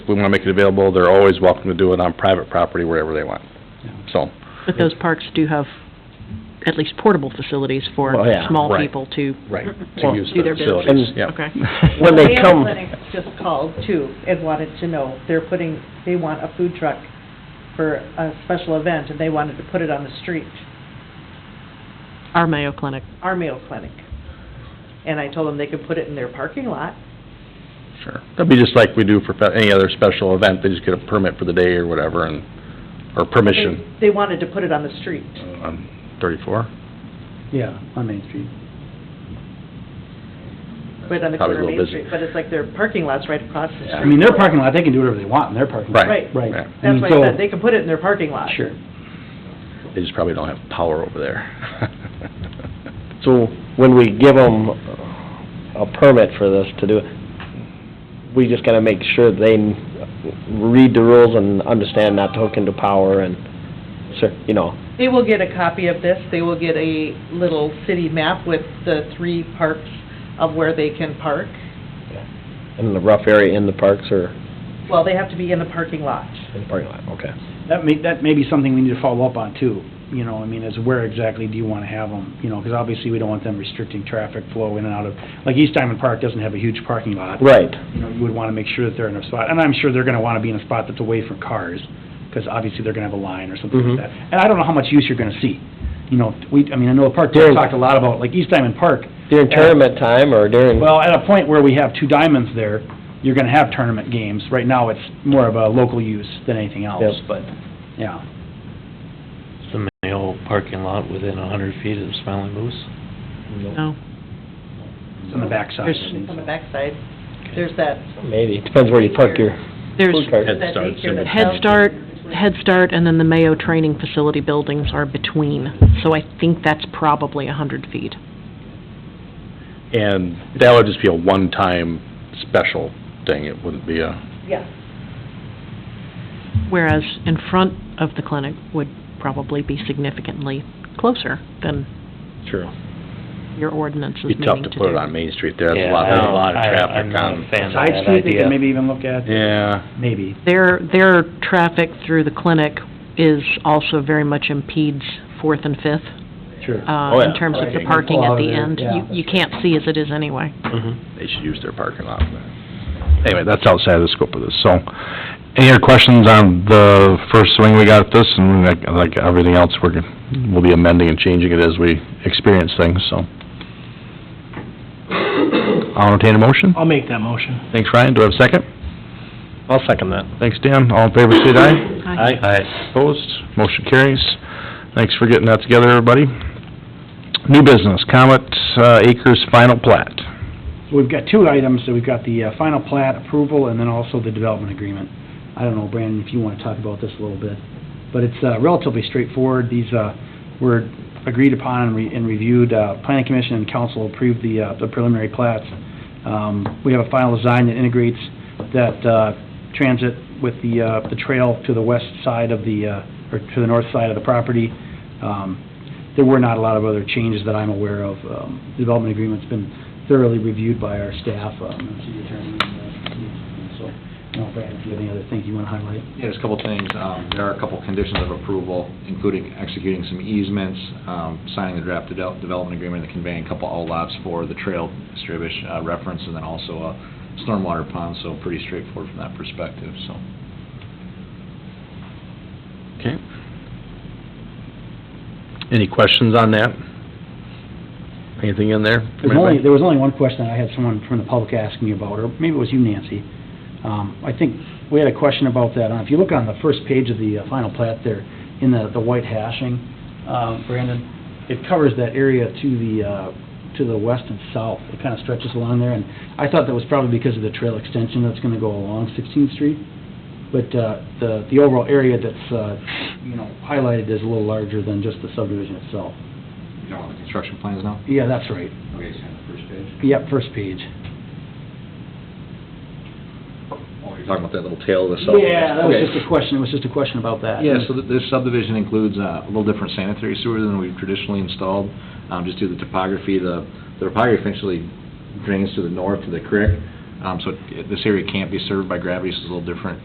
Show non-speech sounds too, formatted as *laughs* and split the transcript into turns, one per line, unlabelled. If we want to make it available, they're always welcome to do it on private property wherever they want. So,
But those parks do have at least portable facilities for
Well, yeah,
small
right.
people to,
right, to
Well,
use
do
the
their business.
facilities, yeah.
okay.
When they come,
The Air Clinic just called too and wanted to know, they're putting, they want a food truck for a special event and they wanted to put it on the street,
Our Mayo Clinic,
our Mayo Clinic. And I told them they could put it in their parking lot.
*laughs* Sure. That'd be just like we do for fe- any other special event, they just get a permit for the day or whatever, and, or permission
They they wanted to put it on the street.
on thirty-four.
yeah, on Main Street.
Right on
Probably a
the corner of
little
Main
busy.
Street, but it's like their parking lot's right across the
Yeah.
street.
I mean, their parking lot, they can do whatever they want in their parking lot.
Right,
Right.
right.
I mean,
That's why
so-
I said, they could put it in their parking lot.
Sure.
They just probably don't have power over there. *laughs*
So when we give them uh, a permit for this to do, we just gotta make sure they read the rules and understand not to hook into power and, cer- you know,
They will get a copy of this, they will get a little city map with the three parks of where they can park.
in the rough area in the parks or
Well, they have to be in the parking lot.
in the parking lot, okay.
That may, that may be something we need to follow up on too, you know, I mean, is where exactly do you want to have them? You know, because obviously we don't want them restricting traffic flow in and out of, like East Diamond Park doesn't have a huge parking lot.
Right,
You know, you would want to make sure that they're in a spot, and I'm sure they're going to want to be in a spot that's away from cars, because obviously they're going to have a line or something
Mhm.
like that. And I don't know how much use you're going to see. You know, we, I mean, I know the park,
During-
we talked a lot about, like East Diamond Park,
during tournament time or during,
Well, at a point where we have two diamonds there, you're gonna have tournament games. Right now, it's more of a local use than anything else,
Yep.
but, yeah.
the Mayo parking lot within a hundred feet of the Smiling Moose?
no.
It's on the backside. I
There's-
think.
On the backside, there's that,
maybe, it depends where you park your
There's
food cart.
Head
that
Start,
daycare that
Head
sells-
Start, Head Start, and then the Mayo Training Facility buildings are between, so I think that's probably a hundred feet.
And that would just be a one-time special thing, it wouldn't be a,
Yeah,
Whereas in front of the clinic would probably be significantly closer than
True.
your ordinance is
be
meaning to do.
tough to put it on Main Street there, there's a lot, a lot of traffic on.
fan
Side street, they could maybe even look at,
Yeah.
maybe.
Their, their traffic through the clinic is also very much impedes Fourth and Fifth,
Sure.
uh,
Oh, yeah.
in terms of the
Right.
parking at the
Yeah.
end. You, you can't see as it is anyway.
they should use their parking lot. for that. Anyway, that's outside of the scope of this, so, any other questions on the first swing we got at this, and like, like everything else, we're, gonna- we'll be amending and changing it as we experience things, so. I'll entertain a motion.
I'll make that motion.
Thanks, Ryan, do I have a second?
I'll second that.
Thanks, Dan, all in favor, say aye.
Aye.
Opposed, motion carries. Thanks for getting that together, everybody. New business, Comet uh, Acres final plat.
We've got two items, so we've got the uh, final plat approval and then also the development agreement. I don't know, Brandon, if you want to talk about this a little bit, but it's uh, relatively straightforward. These uh, were agreed upon and re- and reviewed, Uh, planning commission and council approved the uh, the preliminary plats. Um, We have a final design that integrates that uh, transit with the uh, the trail to the west side of the, uh, or to the north side of the property. Um, There were not a lot of other changes that I'm aware of. Um, Development agreement's been thoroughly reviewed by our staff, um, and city attorney, and, uh, so, I don't know, Brad, if you have any other things you want to highlight?
Yeah, there's a couple things. Um, There are a couple conditions of approval, including executing some easements, um, signing the draft de- development agreement, and conveying a couple outlots for the trail Strabish uh, reference, and then also a stormwater pond, so pretty straightforward from that perspective, so.
Okay. Any questions on that? Anything in there? from
There's only,
anybody?
there was only one question I had someone from the public ask me about, or maybe it was you, Nancy. Um, I think we had a question about that. Uh, If you look on the first page of the uh, final plat there, in the, the white hashing, um, Brandon, it covers that area to the, uh, to the west and south. It kind of stretches along there, and I thought that was probably because of the trail extension that's going to go along 16th Street. But uh, the, the overall area that's, uh, you know, highlighted is a little larger than just the subdivision itself.
You don't want the construction plans now?
Yeah, that's right.
Okay, so on the first page.
Yep, first page.
Oh, you're talking about that little tail of the cell.
Yeah, that was just a question, it was just a question about that.
Yeah, so th- this subdivision includes uh, a little different sanitary sewer than we've traditionally installed, um, just due to the topography. The the topography essentially drains to the north to the creek,
Um, So it- this area can't be served by gravity, so it's a little different